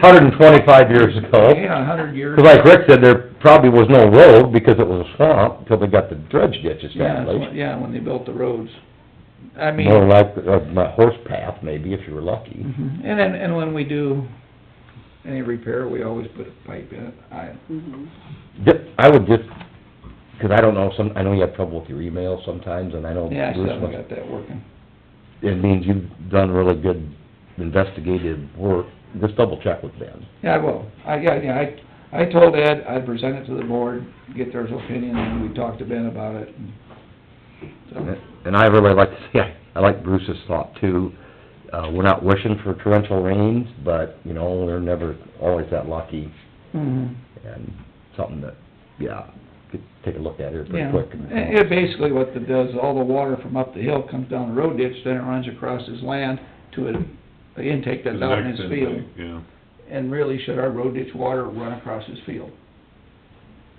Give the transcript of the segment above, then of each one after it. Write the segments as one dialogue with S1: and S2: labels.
S1: hundred and twenty-five years ago.
S2: Yeah, a hundred years.
S1: 'Cause like Rick said, there probably was no road because it was a swamp until they got the dredge ditches
S2: Yeah,
S1: down
S2: that's when- yeah, when they built the roads. I mean,
S1: More like uh, a a horse path maybe if you were lucky.
S2: mhm. and then, and when we do any repair, we always put a pipe in it. I,
S3: Mhm.
S1: Ju- I would just, 'cause I don't know, some, I know you have trouble with your email sometimes, and I know
S2: yeah, I still
S1: Bruce
S2: haven't
S1: must,
S2: got that working.
S1: it means you've done really good investigative work. Just double check with Ben.
S2: Yeah, I will. I, yeah, yeah, I, I told Ed I'd present it to the board, get their opinion, and we talked to Ben about it. and So,
S1: And I really like, yeah, I like Bruce's thought too. Uh, we're not wishing for torrential rains, but, you know, we're never always that lucky.
S2: mhm.
S1: And something that, yeah, could take a look at here pretty
S2: Yeah,
S1: quick.
S2: and it basically what it does, all the water from up the hill comes down the road ditch, then it runs across his land to an intake that's out in his
S4: Next
S2: field.
S4: intake, Yeah,
S2: And really, should our road ditch water run across his field?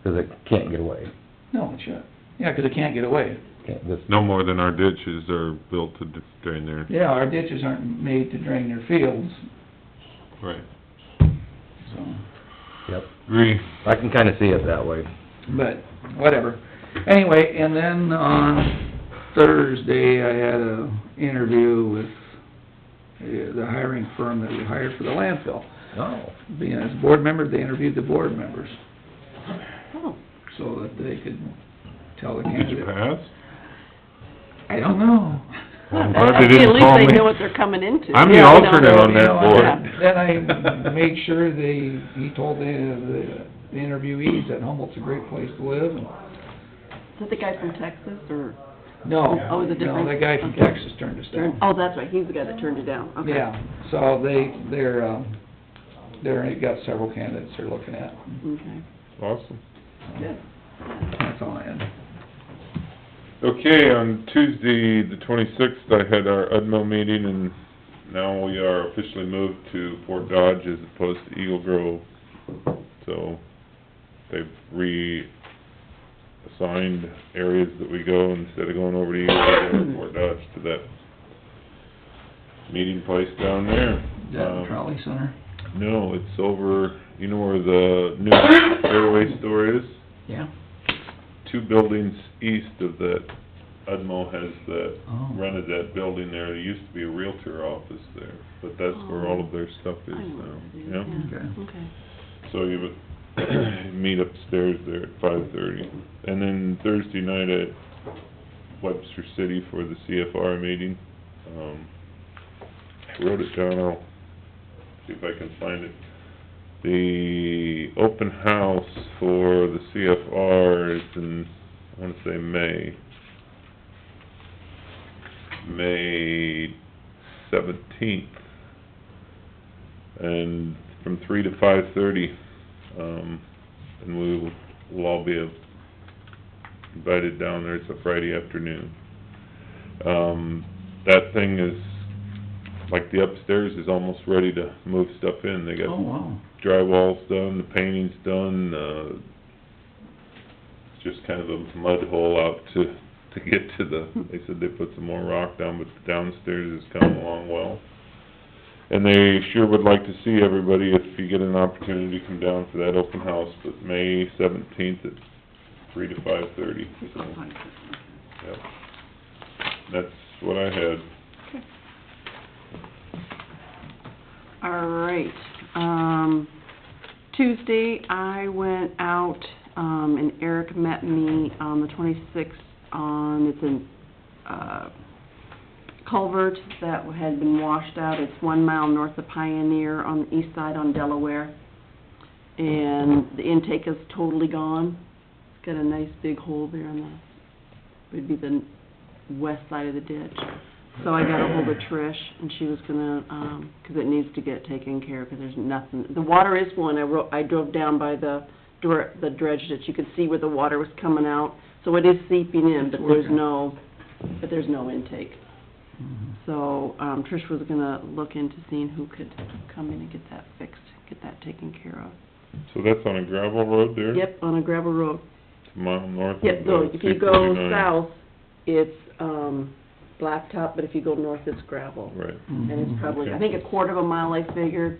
S1: 'Cause it can't get away.
S2: No, it shouldn't. Yeah, 'cause it can't get away.
S1: Can't just,
S4: no more than our ditches are built to d- drain there,
S2: Yeah, our ditches aren't made to drain their fields,
S4: right.
S2: so,
S1: yep.
S4: Agree.
S1: I can kinda see it that way.
S2: but, whatever. Anyway, and then on Thursday, I had a interview with uh, the hiring firm that we hired for the landfill.
S1: Oh.
S2: being as a board member, they interviewed the board members,
S3: Oh,
S2: so that they could tell the
S4: Did you
S2: candidate.
S4: pass?
S2: I don't know.
S4: Well, I'm
S3: Well,
S4: glad they didn't
S3: At
S4: call
S3: least they
S4: me.
S3: know what they're coming into.
S4: I'm the
S3: Yeah, you know,
S4: alternate on that
S2: You know,
S4: board.
S2: Then I made sure they, he told the, the- the interviewees that Humboldt's a great place to live, and,
S3: Is that the guy from Texas, or,
S2: no.
S3: Oh, is it different?
S2: No, the guy from
S3: Okay.
S2: Texas turned us down.
S3: oh, that's right, he's the guy that turned you down, okay.
S2: Yeah, so they, they're, um, they're, they've got several candidates they're looking at.
S3: Okay,
S4: Awesome.
S3: good.
S2: That's all I had.
S4: Okay, on Tuesday, the twenty-sixth, I had our UDMO meeting, and now we are officially moved to Fort Dodge as opposed to Eagle Grove. So, they've reassigned areas that we go, instead of going over to Eagle Grove, we're going to Fort Dodge to that meeting place down there.
S2: Is that the
S4: Um,
S2: trolley center?
S4: No, it's over, you know where the new airway store is?
S2: Yeah.
S4: two buildings east of that, Udmo has that,
S2: Oh.
S4: rented that building there, there used to be a Realtor office there, but that's where all of their stuff is
S3: Oh, I know
S4: now,
S3: what it is,
S4: yeah?
S2: Okay.
S3: yeah, okay.
S4: So you would meet upstairs there at five thirty, and then Thursday night at Webster City for the CFR meeting. Um, I wrote it down, I'll see if I can find it. The open house for the CFR is in, I wanna say May. May seventeenth. And from three to five thirty, um, and we will, we'll all be invited down there, it's a Friday afternoon. Um, that thing is, like the upstairs is almost ready to move stuff in, they
S2: Oh,
S4: got
S2: wow.
S4: drywall's done, the painting's done, uh, it's just kind of a mud hole out to, to get to the, they said they put some more rock down, but the downstairs is coming along well. And they sure would like to see everybody if you get an opportunity to come down for that open house, but May seventeenth at three to five thirty, so, yep. That's what I had.
S3: All right, um, Tuesday, I went out, um, and Eric met me on the twenty-sixth on, it's in, uh, culvert that had been washed out, it's one mile north of Pioneer on the east side on Delaware. And the intake is totally gone, it's got a nice big hole there on the, would be the west side of the ditch. So I got ahold of Trish, and she was gonna, um 'cause it needs to get taken care of, 'cause there's nothing, the water is one, I ro- I drove down by the dr- the dredge ditch, you could see where the water was coming out, so it is seeping in, but there's
S2: Okay.
S3: no, but there's no intake.
S2: Mm-hmm.
S3: So, um, Trish was gonna look into seeing who could come in and get that fixed, get that taken care of.
S4: So that's on a gravel road there?
S3: Yep, on a gravel road,
S4: It's a mile north of the
S3: Yep, so if you
S4: C
S3: go
S4: forty-nine.
S3: south, it's, um, blacktop, but if you go north, it's gravel.
S4: Right.
S2: Mm-hmm.
S3: And it's probably, I
S4: Okay.
S3: think a quarter of a mile, I figured,